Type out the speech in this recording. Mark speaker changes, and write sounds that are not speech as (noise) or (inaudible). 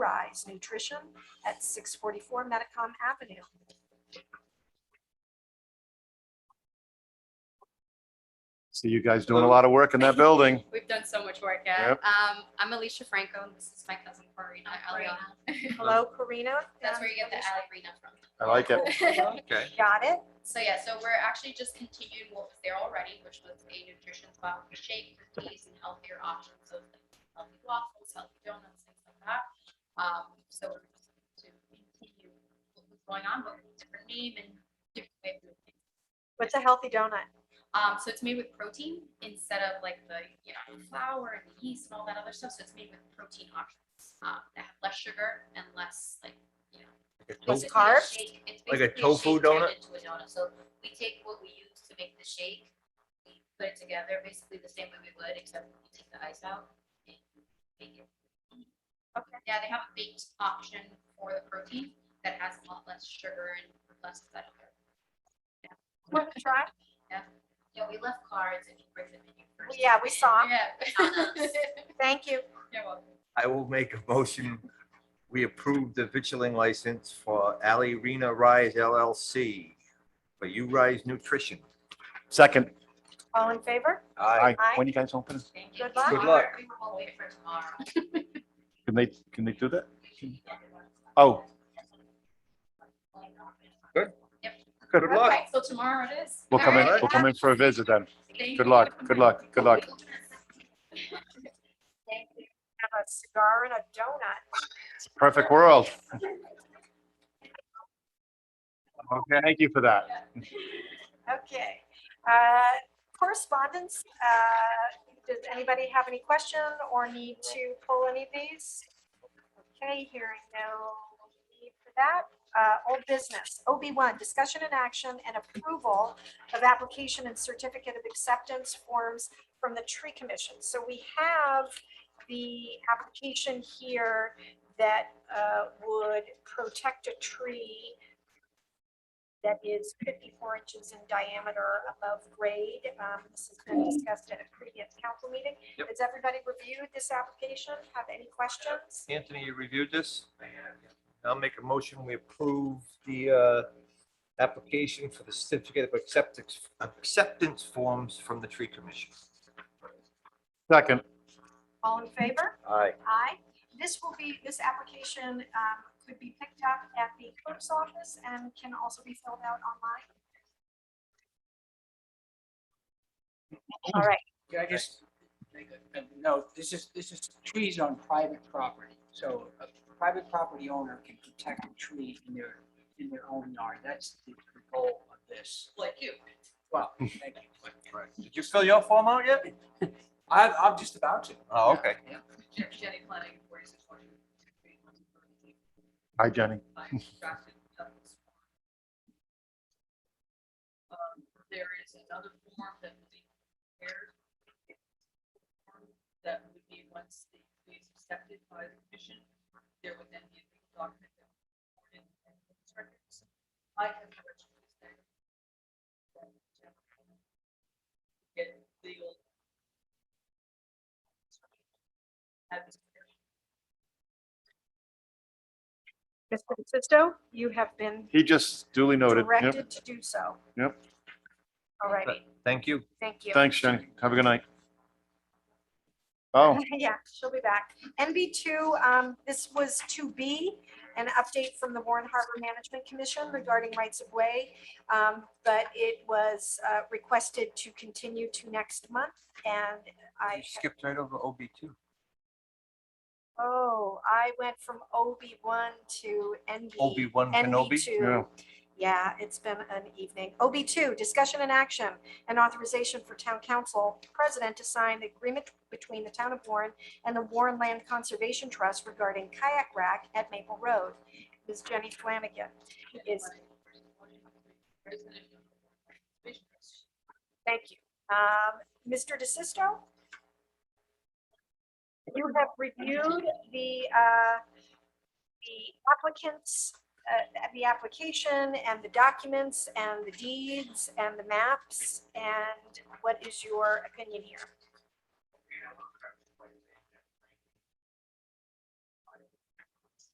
Speaker 1: Rise Nutrition at six forty-four Metacom Avenue.
Speaker 2: See you guys doing a lot of work in that building.
Speaker 3: We've done so much work,
Speaker 2: Yep.
Speaker 3: yeah. Um, I'm Alicia Franco, and this is my cousin Corina Aliana.
Speaker 1: Hello, Karina.
Speaker 3: (laughs) That's where you get the Aliana from.
Speaker 2: I like it.
Speaker 4: Okay.
Speaker 1: Um, Got it?
Speaker 3: (laughs) So yeah, so we're actually just continuing what was there already, which was a nutrition spot with shake, cookies, and healthier options of like healthy waffles, healthy donuts, things like that. Um, so we're just to continue what was going on, but with a different name and different way of doing things.
Speaker 1: What's a healthy donut?
Speaker 3: Um, so it's made with protein instead of like the, you know, flour and the yeast and all that other stuff. So it's made with protein options um, that have less sugar and less like, you know,
Speaker 1: Less
Speaker 3: basically a
Speaker 1: carbs?
Speaker 3: shake- it's
Speaker 4: Oh. Like a
Speaker 3: basically
Speaker 4: tofu
Speaker 3: shake turned
Speaker 4: donut?
Speaker 3: Into a donut. So we take what we use to make the shake, we put it together basically the same way we would, except we take the ice out and make it. Okay. Yeah, they have a baked option for the protein that has a lot less sugar and less of that other
Speaker 1: Want to try?
Speaker 3: yeah, we left cards and you bring them in your
Speaker 1: (laughs)
Speaker 3: first.
Speaker 1: Yeah, we saw 'em.
Speaker 3: Yeah. (laughs)
Speaker 1: Thank you.
Speaker 3: You're welcome.
Speaker 4: I will make a motion. We approve the vitrilling license for Ali Rena Rise LLC for You Rise Nutrition.
Speaker 2: Second,
Speaker 1: All in favor?
Speaker 2: I,
Speaker 1: Aye.
Speaker 2: when you guys open,
Speaker 3: Thank you.
Speaker 1: Good luck.
Speaker 4: Good luck.
Speaker 3: We will wait for tomorrow.
Speaker 2: can they, can they do that? Oh.
Speaker 4: Good.
Speaker 3: Yep.
Speaker 2: Good
Speaker 3: Okay,
Speaker 4: luck.
Speaker 3: So tomorrow it is.
Speaker 2: We'll come in,
Speaker 3: All right.
Speaker 2: we'll come in for a visit then.
Speaker 3: Thank you.
Speaker 2: Good luck, good luck, good luck.
Speaker 3: Thank you.
Speaker 1: Have a cigar and a donut.
Speaker 2: Perfect world. Okay, thank you for that.
Speaker 1: Okay. Uh, Correspondence, uh, does anybody have any question or need to pull any of these? Okay, hearing no need for that. Uh, Old business, OB1, discussion and action and approval of application and certificate of acceptance forms from the tree commission. So we have the application here that uh, would protect a tree that is 54 inches in diameter above grade. Um, This has been discussed at a previous council meeting.
Speaker 4: Yep.
Speaker 1: Has everybody reviewed this application? Have any questions?
Speaker 4: Anthony, you reviewed this? I'll make a motion. We approve the uh, application for the certificate of acceptance, acceptance forms from the tree commission.
Speaker 2: Second,
Speaker 1: All in favor?
Speaker 4: Aye.
Speaker 1: Aye. This will be, this application um, could be picked up at the clerk's office and can also be filled out online. All right,
Speaker 5: Yeah, I just, no, this is, this is trees on private property. So a private property owner can protect a tree in their, in their own yard. That's the goal of this.
Speaker 3: Like you.
Speaker 5: Well, thank you.
Speaker 4: Did you fill your form out yet?
Speaker 5: I'm, I'm just about to.
Speaker 4: Oh, okay.
Speaker 3: Jen- Jenny Planning, where is it for you?
Speaker 2: hi Jenny.
Speaker 3: by drafted Douglas form. Um, There is another form that will be prepared. That would be once the plea is accepted by the commission, there would then be a legal document. that would be recorded in the clerk's records. I have reached this there. Get legal. Have this prepared.
Speaker 1: Mr. Sisto, you have been
Speaker 2: He just duly noted. Yep.
Speaker 1: directed to do so.
Speaker 2: Yep.
Speaker 1: All righty,
Speaker 4: Thank you.
Speaker 1: thank you.
Speaker 2: Thanks, Jenny. Have a good night. Oh,
Speaker 1: (laughs) Yeah, she'll be back. NB two, um, this was two B, an update from the Warren Harbor Management Commission regarding rights of way. Um, but it was, uh, requested to continue to next month and
Speaker 4: You
Speaker 1: I,
Speaker 4: skipped right over OB two.
Speaker 1: oh, I went from OB one to NB.
Speaker 4: OB one Kenobi.
Speaker 1: NB two. Yeah, it's been an evening. OB two, discussion and action and authorization for town council president to sign the agreement between the town of Warren and the Warren Land Conservation Trust regarding kayak rack at Maple Road. Ms. Jenny Flanagan. is- Thank you. Um, Mr. DeSisto? You have reviewed the, uh, the applicants, uh, the application and the documents and the deeds and the maps. And what is your opinion here?